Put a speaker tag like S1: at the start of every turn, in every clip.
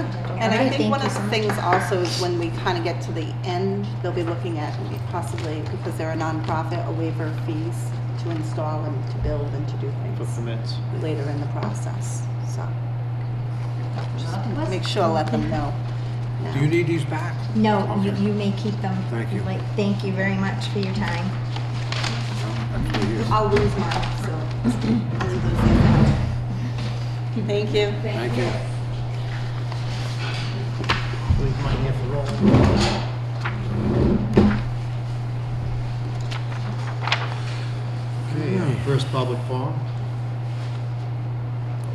S1: And
S2: All
S1: I
S2: right,
S1: think one of
S2: thank you
S1: the
S2: so much.
S1: things also is when we kind of get to the end, they'll be looking at possibly, because they're a nonprofit, a waiver of fees to install and to build and to do
S3: for
S1: things
S3: permits.
S1: later in the process, so. just Make sure, let them know. now.
S4: Do you need these back?
S2: No, you,
S4: Okay.
S2: you may keep them.
S4: Thank you.
S2: Like, thank you very much for your time.
S4: That's for you.
S1: I'll lose mine, so. I'll leave those there. Thank you.
S4: Thank you.
S3: Leave mine here for Roland. Okay, uh, first public forum.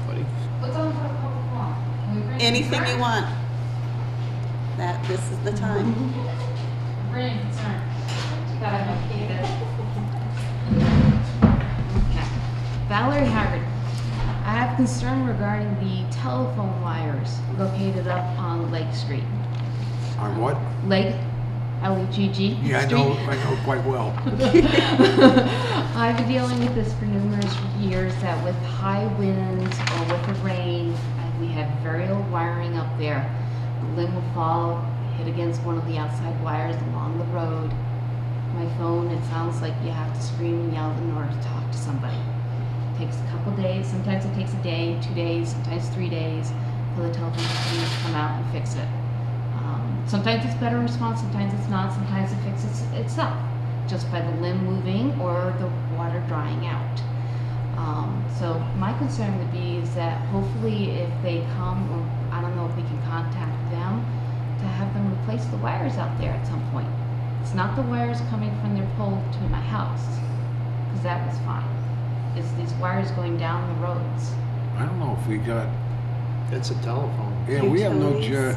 S3: Buddy,
S5: What's on for a public forum? Can we bring-
S1: Anything you want. That, this is the time.
S5: Bring concern. That I'm okay with.
S6: Okay. Valerie Howard, I have concern regarding the telephone wires located up on Lake Street.
S4: On what?
S6: Lake, E L-E-G-G.
S4: Yeah, I know, I know quite well.
S6: I've been dealing with this for numerous years, that with high winds or with the rain, and we have very old wiring up there. The limb will fall, hit against one of the outside wires along the road. My phone, it sounds like you have to scream and yell in order to talk to somebody. It takes a couple days, sometimes it takes a day, two days, sometimes three days, for the telephone company to come out and fix it. Um, sometimes it's better response, sometimes it's not, sometimes it fixes itself just by the limb moving or the water drying out. Um, so my concern would be is that hopefully if they come, or I don't know if we can contact them, to have them replace the wires out there at some point. It's not the wires coming from their pole to my house, because that was fine. It's these wires going down the roads.
S4: I don't know if we got,
S3: it's a telephone.
S4: yeah, we have no, ju-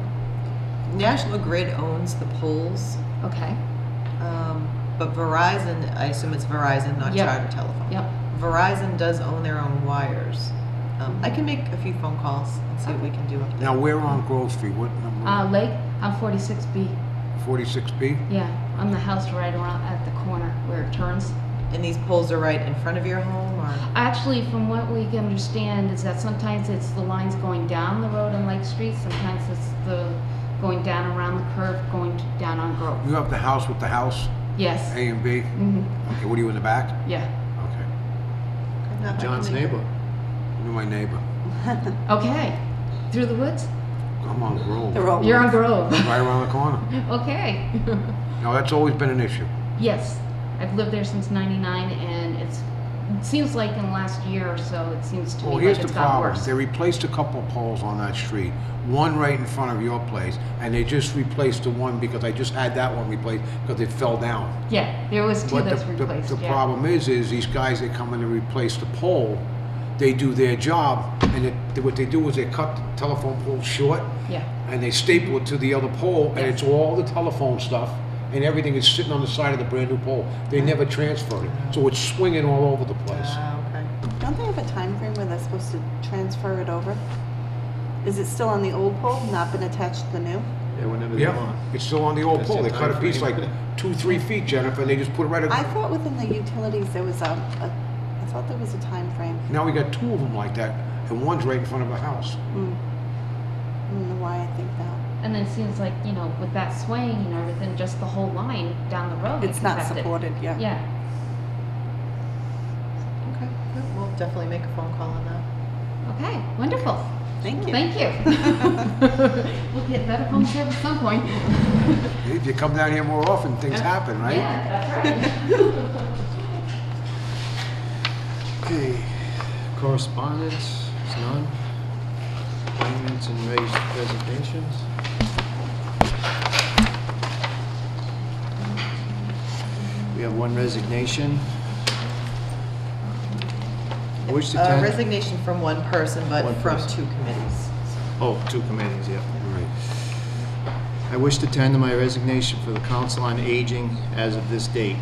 S7: Um, National Grid owns the poles,
S6: Okay.
S7: um, but Verizon, I assume it's Verizon, not
S6: Yep.
S7: Charter Telephone.
S6: Yep.
S7: Verizon does own their own wires. Um, I can make a few phone calls and see what we can do up there.
S4: now we're on Grove Street, what number?
S6: Uh, Lake, I'm 46B.
S4: Forty-six B?
S6: Yeah, I'm the house right around at the corner where it turns.
S7: And these poles are right in front of your home or?
S6: Actually, from what we can understand is that sometimes it's the lines going down the road on Lake Street, sometimes it's the going down around the curve, going t- down on Grove.
S4: You have the house with the house,
S6: Yes.
S4: A and B?
S6: hmm
S4: Okay, what are you in the back?
S6: Yeah.
S4: Okay,
S3: John's neighbor.
S4: you're my neighbor.
S6: Okay. Through the woods?
S4: I'm on
S1: The
S4: Grove,
S1: roll.
S6: You're on Grove.
S4: right around the corner.
S6: okay.
S4: Now, that's always been an issue.
S6: yes. I've lived there since 99 and it's it seems like in the last year or so it seems to
S4: Well,
S6: me
S4: here's
S6: like
S4: the
S6: it's gotten
S4: problem.
S6: worse.
S4: They replaced a couple poles on that street, one right in front of your place, and they just replaced the one because I just had that one replaced because it fell down.
S6: yeah, there was two
S4: But the,
S6: that's
S4: the-
S6: replaced.
S4: the
S6: yeah.
S4: problem is, is these guys that come in to replace the pole, they do their job, and it, what they do is they cut the telephone pole short,
S6: Yeah.
S4: and they staple it to the other pole, and
S6: Yes.
S4: it's all the telephone stuff, and everything is sitting on the side of the brand new pole. They never transferred it, so it's swinging all over the place.
S7: Ah, okay.
S1: Don't they have a time frame where they're supposed to transfer it over? Is it still on the old pole, not been attached to the new?
S3: Yeah, whenever they
S4: Yeah,
S3: want.
S4: it's still on the old
S3: That's
S4: pole.
S3: the
S4: They cut a
S3: time
S4: piece like
S3: frame.
S4: two, three feet, Jennifer, and they just put it right.
S1: I
S4: ac-
S1: thought within the utilities, there was a, a I thought there was a time frame.
S4: Now we got two of them like that, and one's right in front of a house.
S1: Mm. I don't know why I think that.
S6: And it seems like, you know, with that swaying and everything, just the whole line down the road.
S1: It's
S6: gets
S1: not
S6: affected.
S1: supported, yeah.
S6: Yeah,
S7: Okay, yeah, we'll definitely make a phone call on that.
S6: okay, wonderful,
S1: Thank you.
S6: thank you. We'll get better home care at some point.
S4: If you come down here more often, things happen, right?
S6: Yeah, that's right.
S3: Okay, correspondence, is none. Appointments and raised resignations. We have one resignation. Which the
S7: Uh,
S3: town-
S7: Resignation from one person, but
S3: One
S7: from
S3: person.
S7: two committees.
S3: Oh, two committees, yeah. Right. I wish to tender my resignation for the Council on Aging as of this date.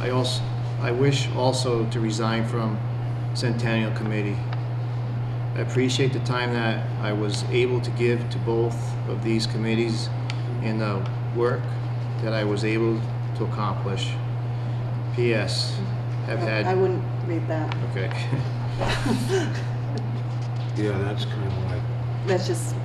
S3: I also, I wish also to resign from Centennial Committee. I appreciate the time that I was able to give to both of these committees and the work that I was able to accomplish. P.S.
S1: I-
S3: Have
S1: I
S3: had,
S1: wouldn't read that.
S3: okay.
S4: Yeah, that's kind of like,
S1: That's just